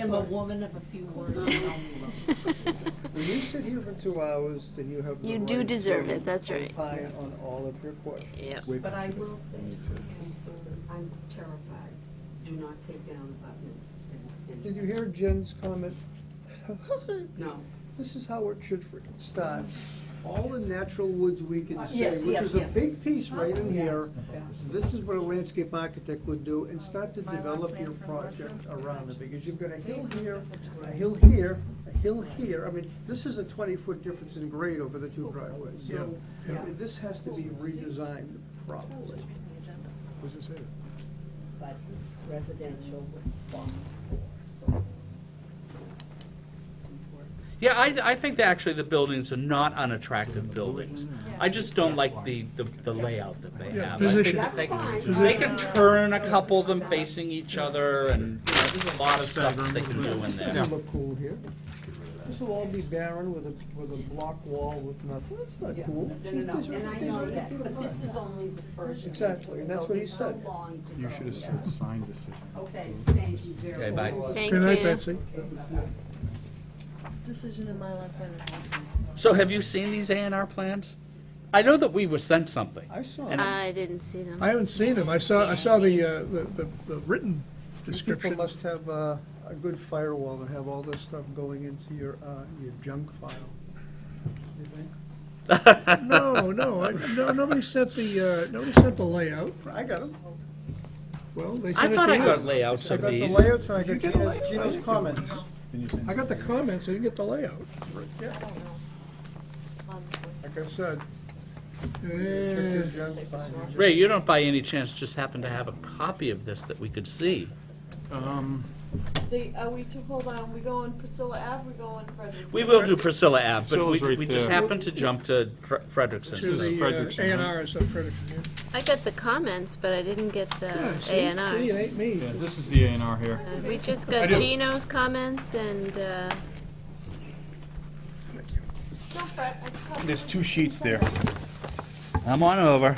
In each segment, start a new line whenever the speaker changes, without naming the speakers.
am a woman of a few words.
When you sit here for two hours, then you have the
You do
right
deserve
to
it, that's right.
opine on all of your questions.
Yep.
With-
But I will say to him, sir, I'm terrified. Do not take down abutments. and-
Did
and-
you hear Jen's comment?
No.
This is how it should freaking start. All the natural woods we can say,
Yes,
which
yes,
is a
yes.
big piece right in
Yeah,
here.
yeah.
This is what a landscape architect would do, and start to
My lot
develop
plan
your
for
project
Northfield?
around it, because you've got a hill here, a
Right.
hill here, a hill here. I mean, this is a twenty-foot difference in grade over the two driveways. So
Yeah.
this has to be redesigned properly.
What does it say?
But residential was fun for, so. It's important.
Yeah, I, I think that actually the buildings are not unattractive buildings. I just don't like the, the the layout that they
Yeah,
have. I think
position.
that they-
That's fine. Uh,
They can turn a couple of them facing each other and, you know, there's a lot of stuff that they can do in there.
This will look cool here. This will all be barren with a, with a block wall with nothing. That's not
Yeah.
cool.
No, no,
These
no,
are-
and I
these
know
are-
that, but this is only the first.
Exactly, and that's
so
what he
there's
said.
so long to
You
go.
should have said sign decision.
Okay, thank you very much.
Okay, bye.
Thank
Good night,
you.
Betsy.
Decision in my life plan
So have you seen these A and R plans? I know that we were sent something.
I saw.
And
I didn't see them.
I haven't seen him. I saw, I saw the, uh, the, the- the written
You People
description.
must have uh, a good firewall and have all this stuff going into your, uh, your junk file, you think?
No, no, I, no, nobody sent the, uh, nobody sent the layout.
I got them.
Well, they
I
sent it
thought
to
I
you.
got layouts
I
of
got the
these.
layouts and I got
You get a
Gino's,
layout.
Gino's comments.
I got the comments, I didn't get the layout.
Like I said, check your
Eh,
junk file. your junk-
Ray, you don't by any chance just happen to have a copy of this that we could see?
Um,
They, are we to, hold on, we going Priscilla Ave, we going Frederick?
We will do Priscilla Ave, but
Priscilla's
we,
right
we just
there.
happened to jump to Fre- Frederickson's.
to the
Frederickson,
A and
huh?
R is up Frederickson.
I got the comments, but I didn't get the
yeah. Yeah, see?
Uh, A and
See, it ain't
Rs.
me.
Yeah, this is the A and R here.
Uh, We just
I
got
do.
Gino's comments and, uh,
There's two sheets there.
I'm on over.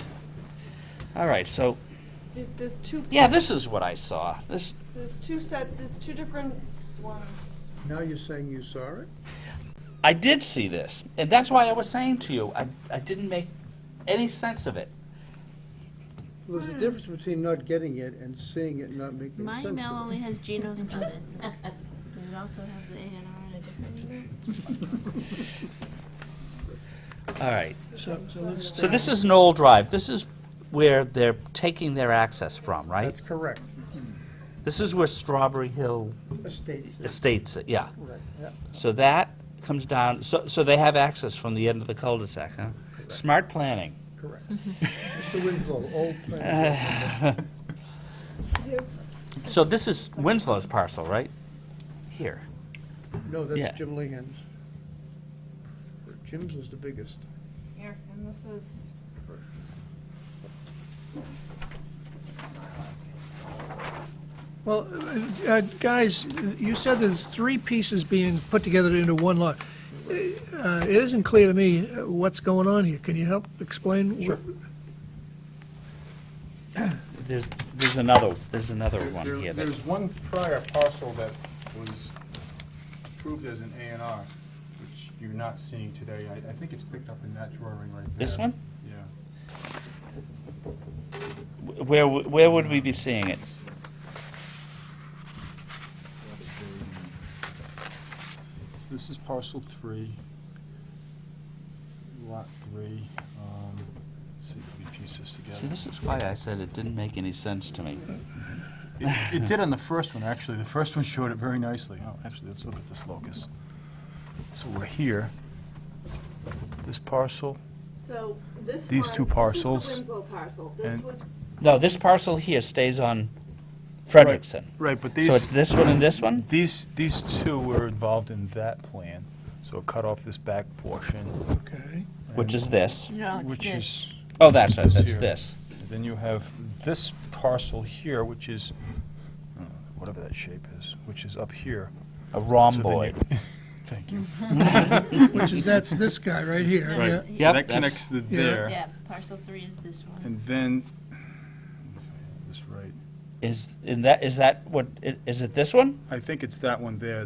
All right, so,
Dude, There's two,
yeah, this is what I saw. This,
there's two set, there's two different ones.
Now you're saying you saw it?
I did see this, and that's why I was saying to you, I, I didn't make any sense of it.
Well, There's a difference between not getting it and seeing it not making
my
sense
email
of it.
only has Gino's comments. in it. It also has the A and R in a different email.
All right,
So so let's-
so this is Knoll Drive. This is where they're taking their access from, right?
That's correct.
This is where Strawberry Hill
Estates,
Estates, yeah.
right, yeah.
So that comes down, so, so they have access from the end of the cul-de-sac, huh? Smart planning.
Correct. Mr. Winslow, old
Uh,
plan.
So this is Winslow's parcel, right? Here.
No,
yeah.
that's Jim Lingham's. Jim's was the biggest.
Here, and this is.
Well, uh, uh, guys, you said there's three pieces being put together into one lot. Uh, It isn't clear to me uh, what's going on here. Can you help explain? Sure.
There's, there's another, there's another one
There-
here. that-
There's one prior parcel that was approved as an A and R, which you're not seeing today. I, I think it's picked up in that drawing right there.
This one?
Yeah.
Wh- Where, w- where would we be seeing it?
This is parcel three, lot three. Um, let's see if we can piece this
See,
together.
this is why I said it didn't make any sense to me.
It it did on the first one, actually. The first one showed it very nicely. Oh, actually, let's look at this locus. So we're here. This parcel,
So this
These
one-
two parcels.
This is the Winslow parcel. This
And-
was
No, this parcel here stays on Frederickson.
Right, but
So it's
these,
this one and this one?
these, these two were involved in that plan, so it cut off this back portion.
Okay.
Which is this?
No,
Which is,
Oh, that's it,
This
that's
here.
this.
then you have this parcel here, which is, uh, whatever that shape is, which is up here.
A
So then you-
rhomboid.
Thank you.
Which is, that's this guy right here.
Right.
Mm-hmm. yeah.
So
Yep,
That
that's-
connects to
Yeah.
there.
parcel three is this one.
And then, this right,
Is, and that, is that what, i- is it this one?
I think it's that one there